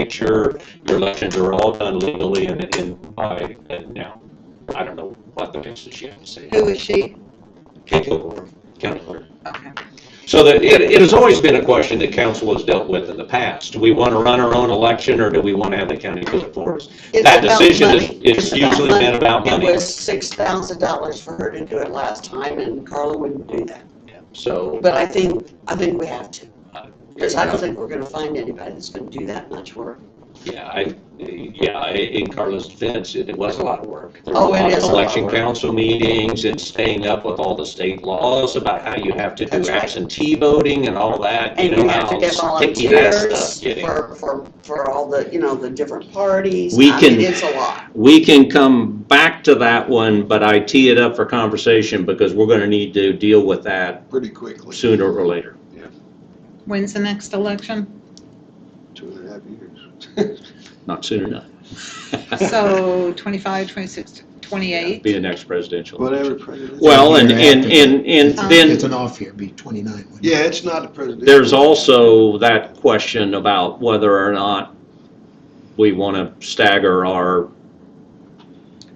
make sure your elections are all done legally and, and by, and now, I don't know what the fix is yet, so. Who is she? Can't go over, county clerk. Okay. So that, it, it has always been a question that council has dealt with in the past. Do we want to run our own election, or do we want to have the county do it for us? It's That about decision is- money. is It's about usually been money. about money. It was six thousand dollars for her to do it last time, and Carla wouldn't do that. So, But I think, I think we have to, because I don't think we're gonna find anybody that's gonna do that much work. yeah, I, yeah, i- in Carla's defense, it it was a lot of work. There were a Oh, it lot of is a lot of Election work. council meetings and staying up with all the state laws about how you have to do That's right. absentee voting and all that. And know, you have to how get sticky that stuff volunteers getting. for, for, for all the, you know, the different parties. We I mean, can- It's a lot. We can come back to that one, but I tee it up for conversation because we're going to need to deal with that pretty quickly, sooner or later. When's the next election? two and a half years. Not soon enough. So 25, 26, Be 28. the next presidential. Whatever president. Well, and, Year and, after. and, and Um, It's then an off year, be 29. wouldn't it? Yeah, it's not a president. there's also that question about whether or not we want to stagger our,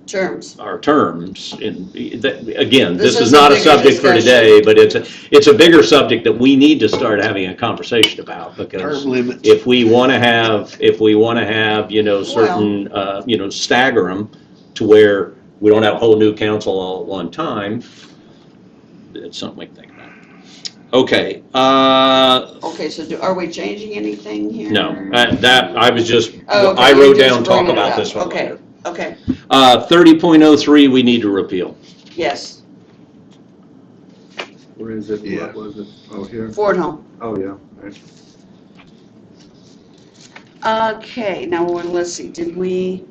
Terms. our terms. And that, again, This this is is not a a bigger subject for discussion. today, but it's, a it's a bigger subject that we need to start having a conversation about because Term limits. if we want to have, if we want to have, you know, certain, uh, you know, stagger them to where we don't have a whole new council all at one time, it's something we can think about. Okay, uh, Okay, so do, are we changing anything here? no, that, that- I was just, Oh, okay, I wrote you're just down, talk bringing it about up. this one Okay, later. Okay, Uh, thirty point oh three, we need to repeal. yes, Where is it? Yeah. What was it? Oh, here? Ford Home. Oh, yeah. Right. Okay, now, well, let's see, did we,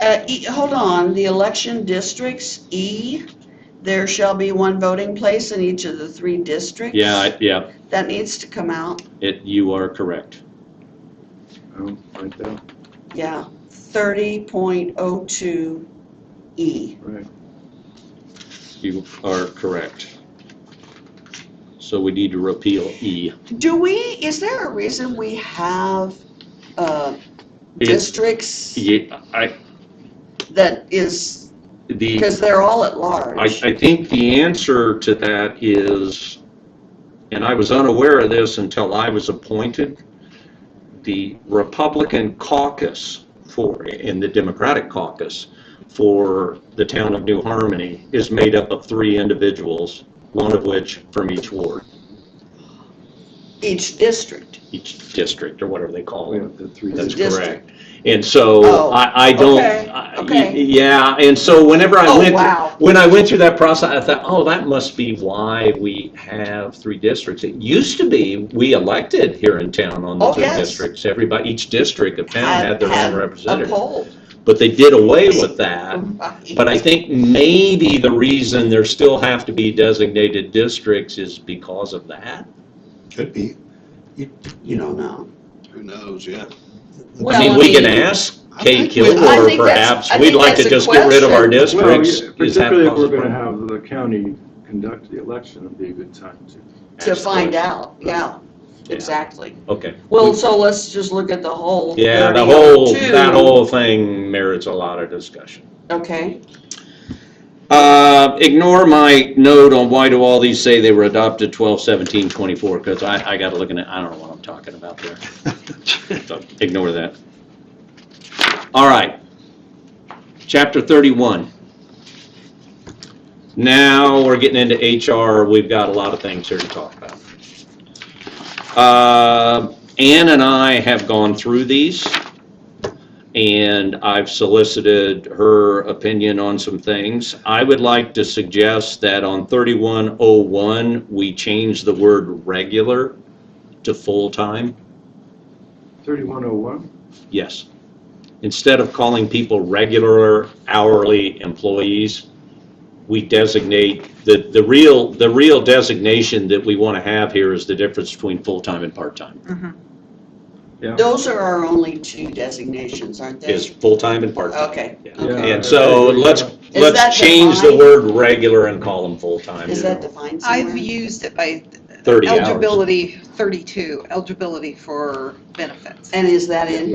uh, E, hold on, the election districts, E, there shall be one voting place in each of the three districts. Yeah, I- yeah, That needs to come out, it, you are correct. Oh, right there. yeah, thirty point oh two E. Right. You are correct. So we need to repeal E. Do we, is there a reason we have, uh, It's- districts Ye- I, that is, the. because they're all at I, large? I think the answer to that is, and I was unaware of this until I was appointed, the Republican caucus for, in the Democratic caucus for the town of New Harmony is made up of three individuals, one of which from each ward, Each district. each district, or whatever they call We it. have Oh, the three. That's district. correct. And so Oh, I, I don't, okay, I- okay. yeah, and so whenever I Oh, went, wow. when I went through that process, I thought, oh, that must be why we have three districts. It used to be, we elected here in town on the Oh, three yes. districts. Everybody, each district of town had their own A representative. poll. But they did away with that. Right. Uh, But I think maybe the reason there still have to be designated districts is because of that. Could be. You don't know. Who knows, yeah. I mean, Well, we can I mean- ask Kay I think we- I Kilgore, think that's- perhaps, I we'd think like to that's a just get rid of our question. Well, districts. yeah, Is that particularly if we're possible? gonna have the county conduct the election, it'd be a good time to. To Ask find the- out, yeah, Yeah. exactly. Okay. Well, so let's just look at the whole. Yeah, the 30 whole, two. that whole thing merits a lot of discussion. Okay, Uh, ignore my note on why do all these say they were adopted twelve seventeen twenty-four, because I, I gotta look in it, I don't know what I'm talking about there. So Ignore that. All right. Chapter thirty-one. Now, we're getting into HR, we've got a lot of things here to talk about. Uh, Ann and I have gone through these and I've solicited her opinion on some things. I would like to suggest that on 3101, we change the word regular to full-time. Thirty-one oh one? Yes. Instead of calling people regular hourly employees, we designate, the, the real, the real designation that we want to have here is the difference between full-time and part-time. Yeah. those are our only two designations, aren't they? Is full-time and part-time. Okay, Yeah. okay. And so let's, that let's change the defined? word regular and call them full-time. Is that defined I've somewhere? used it by 30 hours. eligibility, 32, eligibility for benefits. And is that in